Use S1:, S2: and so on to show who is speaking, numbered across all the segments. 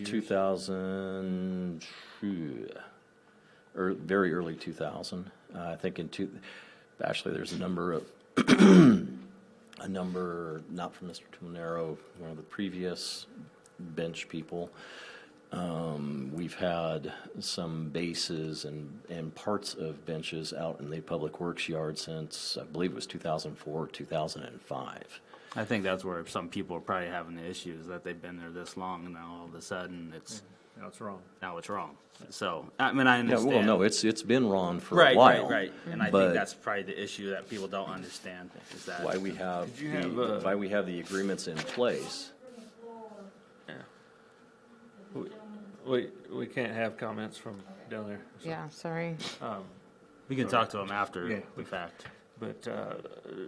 S1: two thousand, or very early two thousand. Uh, I think in two, actually, there's a number of, a number, not from Mr. Tomonero, one of the previous bench people. Um, we've had some bases and, and parts of benches out in the public works yard since, I believe it was two thousand four, two thousand and five.
S2: I think that's where some people are probably having the issues that they've been there this long and now all of a sudden it's,
S3: That's wrong.
S2: now it's wrong. So, I mean, I
S1: Yeah,
S2: understand.
S1: well, no, it's, it's been wrong for a
S2: Right,
S1: while.
S2: right, right. And I
S1: but-
S2: think that's probably the issue that people don't understand is that.
S1: why we have,
S4: Did you have,
S1: the-
S4: uh,
S1: why we have the agreements in place.
S4: We, we, we can't have comments from down there. so,
S5: Yeah, sorry.
S4: Um,
S2: We can talk to them after
S4: Yeah.
S2: the fact.
S4: but, uh,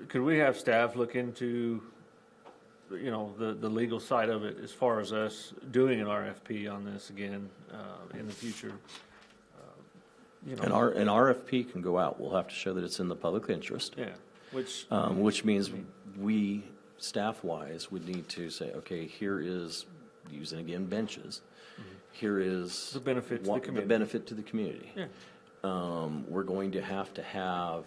S4: could we have staff look into, you know, the, the legal side of it as far as us doing an RFP on this again, uh, in the future? Uh, You
S1: An
S4: know,
S1: R, an RFP can go out, we'll have to show that it's in the public interest,
S4: yeah, which,
S1: um, which means we, staff-wise, would need to say, okay, here is, using again benches, here is.
S4: The benefit to the
S1: what-
S4: community.
S1: benefit to the community.
S4: Yeah.
S1: Um, we're going to have to have,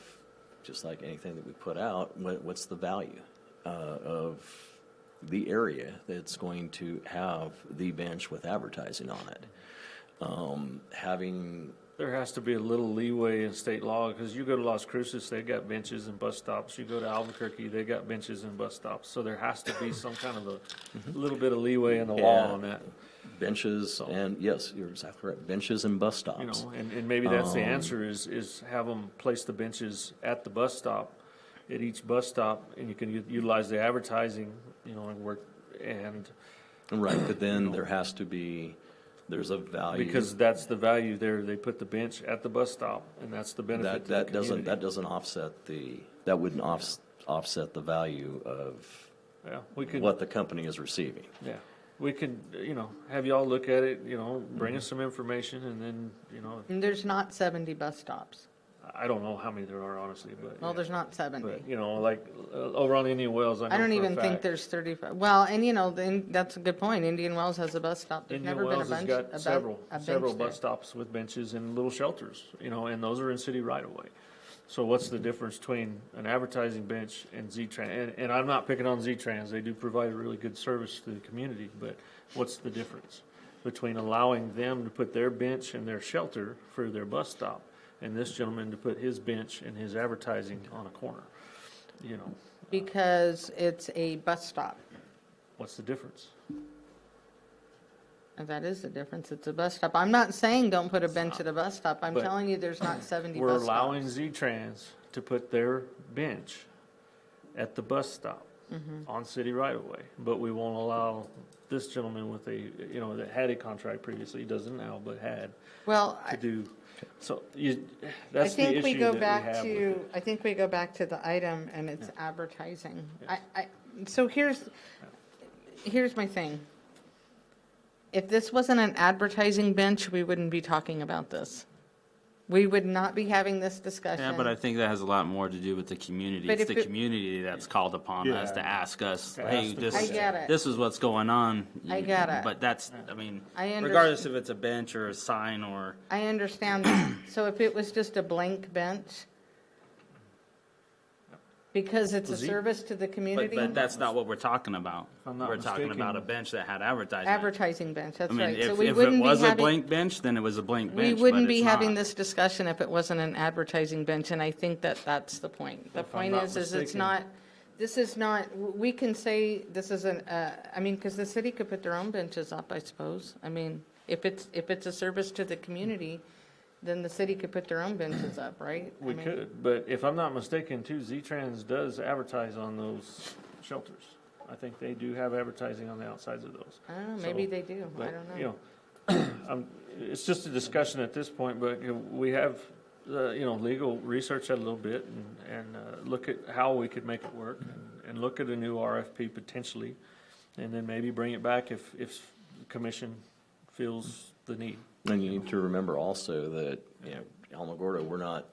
S1: just like anything that we put out, what, what's the value, uh, of the area that's going to have the bench with advertising on it? Um, having
S4: there has to be a little leeway in state law, because you go to Las Cruces, they got benches and bus stops. You go to Albuquerque, they got benches and bus stops. So there has to be some kind of a, little bit of leeway in the law
S1: Mm-hmm. Yeah.
S4: on that.
S1: Benches and, yes, you're exactly right, benches and bus
S4: You
S1: stops.
S4: know, and, and maybe that's
S1: Um,
S4: the answer is, is have them place the benches at the bus stop, at each bus stop, and you can u- utilize the advertising, you know, and work, and,
S1: Right, but then there has to be, there's a value.
S4: because that's the value there, they put the bench at the bus stop, and that's the
S1: That,
S4: benefit to the
S1: that doesn't, that
S4: community.
S1: doesn't offset the, that wouldn't offs, offset the value of
S4: Yeah, we could,
S1: what the company is receiving.
S4: yeah, we could, you know, have y'all look at it, you know, bring
S1: Mm-hmm.
S4: us some information, and then, you know,
S5: And there's not 70 bus stops.
S4: I don't know how many there are honestly, but.
S5: Well,
S4: yeah.
S5: there's not 70.
S4: But, you know, like, uh, over on Indian Wells, I know
S5: I don't
S4: for a
S5: even think
S4: fact-
S5: there's 35. Well, and you know, then, that's a good point. Indian Wells has a bus stop. There's
S4: Indian
S5: never been a
S4: Wells has
S5: bunch, a
S4: got
S5: bu-
S4: several,
S5: a
S4: several
S5: bench
S4: bus
S5: there.
S4: stops with benches and little shelters, you know, and those are in city right of way. So what's the difference between an advertising bench and Z-Trans? And, and I'm not picking on Z-Trans, they do provide a really good service to the community, but what's the difference? Between allowing them to put their bench and their shelter for their bus stop and this gentleman to put his bench and his advertising on a corner? You know,
S5: Because it's a bus stop.
S4: what's the difference?
S5: And That is the difference. It's a bus stop. I'm not saying don't put a bench at a bus stop. I'm
S4: But
S5: telling you, there's not 70
S4: We're
S5: bus
S4: allowing
S5: stops.
S4: Z-Trans to put their bench at the bus stop
S5: Mm-hmm.
S4: on city right-of-way, but we won't allow this gentleman with a, you know, that had a contract previously, doesn't now, but had,
S5: Well, I-
S4: to do, so you,
S5: I
S4: that's the
S5: think we
S4: issue
S5: go
S4: that we have
S5: back
S4: with it.
S5: to, I think we go back to the item and it's advertising. I, I, so here's, here's my thing. If this wasn't an advertising bench, we wouldn't be talking about this. We would not be having this discussion.
S2: Yeah, but I think that has a lot more to do with the community.
S5: But
S2: It's
S5: if
S2: the
S5: it-
S2: community that's called upon us to ask us,
S4: To
S2: hey,
S4: ask the
S2: this,
S5: I get it.
S2: this is what's going on.
S5: I get it.
S2: But that's, I mean,
S5: I under-
S2: regardless if it's a bench or a sign or,
S5: I understand that. So if it was just a blank bench, because it's a
S4: Z-
S5: service to the
S2: but,
S5: community,
S2: but that's not what we're talking about.
S4: I'm not
S2: We're talking
S4: mistaken-
S2: about a bench that had advertising.
S5: advertising bench,
S2: I
S5: that's
S2: mean,
S5: right. So
S2: if,
S5: we
S2: if it
S5: wouldn't be
S2: was a
S5: having.
S2: blank bench, then it was a blank
S5: We
S2: bench,
S5: wouldn't
S2: but
S5: be
S2: it's
S5: having
S2: not.
S5: this discussion if it wasn't an advertising bench, and I think that that's the point. The
S4: If I'm
S5: point
S4: not
S5: is, is it's
S4: mistaken.
S5: not, this is not, w- we can say this is an, uh, I mean, because the city could put their own benches up, I suppose. I mean, if it's, if it's a service to the community, then the city could put their own benches up, right? I
S4: We
S5: mean,
S4: could, but if I'm not mistaken too, Z-Trans does advertise on those shelters. I think they do have advertising on the outsides of those.
S5: I don't know, maybe
S4: So-
S5: they do, I
S4: But,
S5: don't
S4: you
S5: know.
S4: um, It's just a discussion at this point, but you know, we have, uh, you know, legal research that a little bit and, and uh, look at how we could make it work and- and look at a new RFP potentially, and then maybe bring it back if, if the commission feels the need.
S1: And you need to remember also that, you know, Alamogordo, we're not,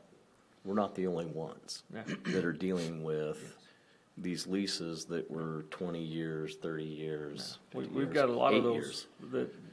S1: we're not the only ones
S4: Yeah.
S1: that are dealing with these leases that were twenty years, thirty years.
S4: We-
S1: 50
S4: We've
S1: years,
S4: got a lot of
S1: eight
S4: those
S1: years.
S4: that